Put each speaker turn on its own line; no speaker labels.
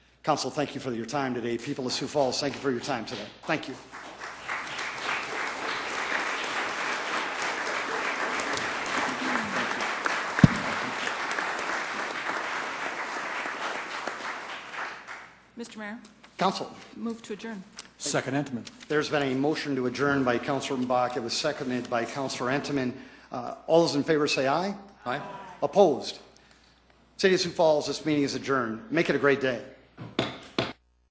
Council, thank you for your time today. People of Sioux Falls, thank you for your time today. Thank you.
Mr. Mayor,
Council.
move to adjourn.
Second Intimate.
There's been a motion to adjourn by Councilor Mbach. It was seconded by Councilor Entenmann. Uh, All those in favor say aye. Aye. Opposed? City of Sioux Falls, this meeting is adjourned. Make it a great day.